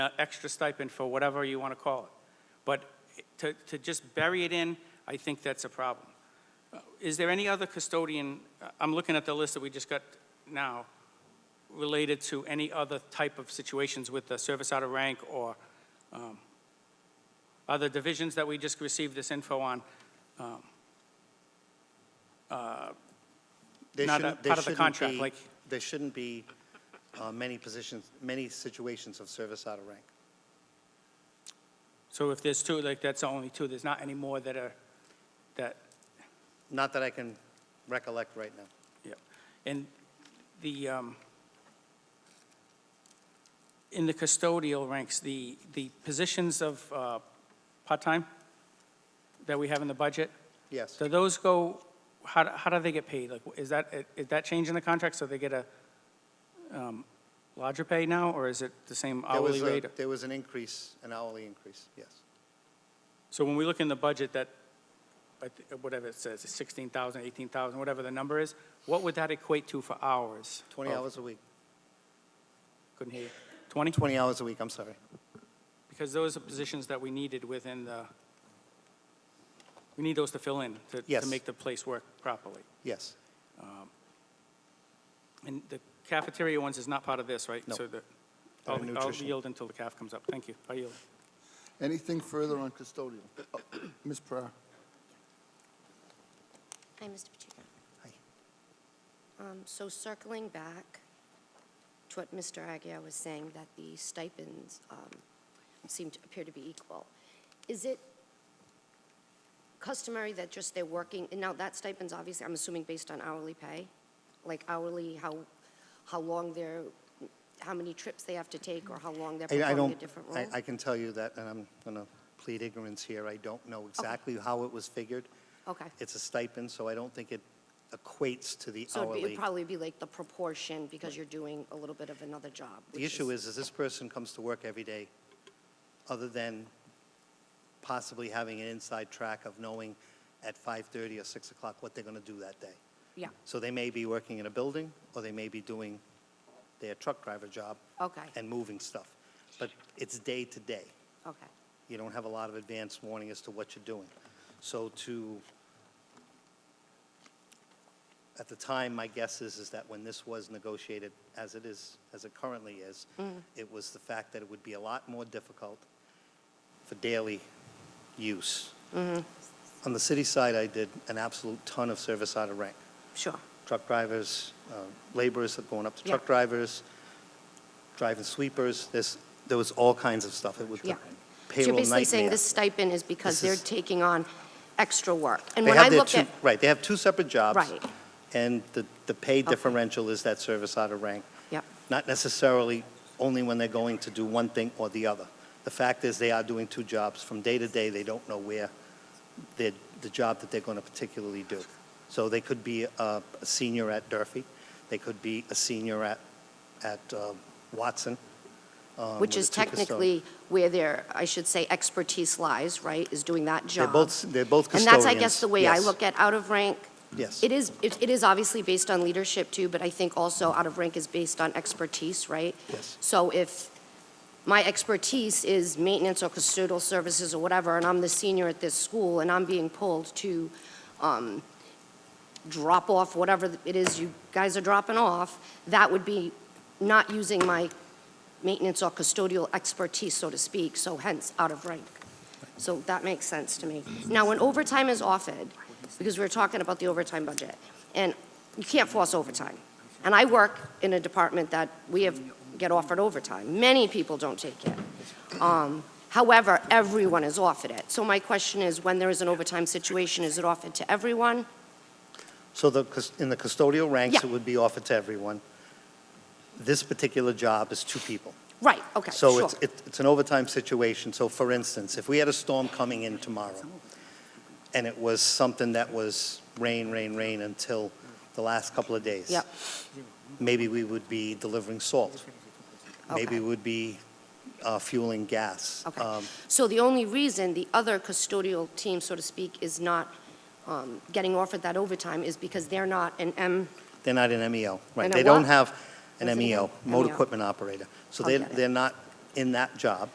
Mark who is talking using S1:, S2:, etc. S1: uh, extra stipend for whatever you want to call it. But to, to just bury it in, I think that's a problem. Uh, Is there any other custodian, uh, I'm looking at the list that we just got now, related to any other type of situations with the service out of rank or um, other divisions that we just received this info on? Um, uh,
S2: They
S1: not a-
S2: shouldn't- they
S1: part of the
S2: shouldn't
S1: contract,
S2: be-
S1: like-
S2: There shouldn't be uh, many positions, many situations of service out of rank.
S1: So if there's two, like, that's only two, there's not any more that are, that
S2: Not that I can recollect right now.
S1: Yep. And the, um, in the custodial ranks, the, the positions of uh, part-time that we have in the budget,
S2: Yes,
S1: do those go, how, do- how do they get paid? Like, is that, is that change in the contract, so they get a um, larger pay now, or is it the same
S2: there
S1: hourly
S2: was, a-
S1: rate?
S2: there was an increase, an hourly increase, yes.
S1: So when we look in the budget, that, I thi- whatever it says, 16,000, 18,000, whatever the number is, what would that equate to for hours?
S2: 20
S1: of-
S2: hours a week,
S1: Couldn't hear you. 20?
S2: 20 hours a week, I'm sorry.
S1: Because those are positions that we needed within the, we need those to fill in, to, to
S2: Yes.
S1: make the place work properly.
S2: Yes,
S1: And the cafeteria ones is not part of this, right?
S2: No.
S1: So the,
S2: They're
S1: I'll I'll
S2: nutrition.
S1: yield until the calf comes up. Thank you. I yield.
S3: Anything further on custodial? Oh, Ms. Pereira?
S4: Hi, Mr. Pacheco.
S2: Hi.
S4: Um, So circling back to what Mr. Aguirre was saying, that the stipends um, seem to appear to be equal, is it customary that just they're working, and now that stipend's obviously, I'm assuming based on hourly pay? Like hourly, how, how long they're, how many trips they have to take, or how long they're
S2: I- I
S4: performing a
S2: don't,
S4: different
S2: I,
S4: role?
S2: I can tell you that, and I'm going to plead ignorance here, I don't know exactly how it was figured.
S4: Okay.
S2: It's a stipend, so I don't think it equates to the
S4: So it'd be-
S2: hourly.
S4: it'd probably be like the proportion, because you're doing a little bit of another job.
S2: The
S4: which
S2: issue is, is this person comes to work every day, other than possibly having an inside track of knowing at 5:30 or 6 o'clock what they're going to do that day.
S4: Yeah,
S2: So they may be working in a building, or they may be doing their truck driver job
S4: okay,
S2: and moving stuff. But it's day to day.
S4: okay.
S2: You don't have a lot of advance warning as to what you're doing. So to, at the time, my guess is, is that when this was negotiated, as it is, as it currently is, it was the fact that it would be a lot more difficult for daily use. On the city side, I did an absolute ton of service out of rank.
S4: Sure,
S2: Truck drivers, uh, laborers that going up to truck
S4: Yeah.
S2: drivers, driving sweepers, this, there was all kinds of stuff. It was
S4: yeah.
S2: the
S4: So you're
S2: payroll
S4: basically saying
S2: nightmare.
S4: this stipend is because
S2: This
S4: they're
S2: is-
S4: taking on extra work? And
S2: They
S4: when
S2: have
S4: I
S2: their
S4: look
S2: two-
S4: at,
S2: Right, they have two separate jobs.
S4: Right.
S2: And the, the pay
S4: Okay.
S2: differential is that service out of rank.
S4: Yep.
S2: Not necessarily only when they're going to do one thing or the other. The fact is, they are doing two jobs. From day to day, they don't know where the, the job that they're going to particularly do. So they could be a a senior at Durfee, they could be a senior at, at uh, Watson. um,
S4: which
S2: with
S4: is
S2: the two custodians.
S4: technically where their, I should say, expertise lies, right, is doing that job?
S2: They're both, they're both
S4: And
S2: custodians.
S4: that's, I guess, the way I
S2: Yes,
S4: look at out of rank.
S2: Yes.
S4: It is, it it is obviously based on leadership too, but I think also out of rank is based on expertise, right?
S2: Yes.
S4: So if my expertise is maintenance or custodial services or whatever, and I'm the senior at this school, and I'm being pulled to um, drop off whatever it is you guys are dropping off, that would be not using my maintenance or custodial expertise, so to speak, so hence out of rank. So that makes sense to me. Now, when overtime is offered, because we were talking about the overtime budget, and you can't force overtime. And I work in a department that we have, get offered overtime. Many people don't take it. Um, However, everyone is offered it. So my question is, when there is an overtime situation, is it offered to everyone?
S2: So the, cus- in the custodial ranks,
S4: Yeah.
S2: it would be offered to everyone. This particular job is two people.
S4: Right, okay,
S2: So
S4: sure.
S2: it's, it- it's an overtime situation. So for instance, if we had a storm coming in tomorrow, and it was something that was rain, rain, rain until the last couple of days.
S4: Yep.
S2: Maybe we would be delivering salt. Maybe
S4: Okay.
S2: we would be uh, fueling gas.
S4: Okay.
S2: Um,
S4: So the only reason the other custodial team, so to speak, is not um, getting offered that overtime is because they're not an M,
S2: They're not an MEO, right?
S4: And a
S2: They don't
S4: what?
S2: have
S4: What's
S2: an
S4: it E again?
S2: MEO, motor
S4: MEO. Oh,
S2: equipment operator. So they're,
S4: Okay.
S2: they're not in that job.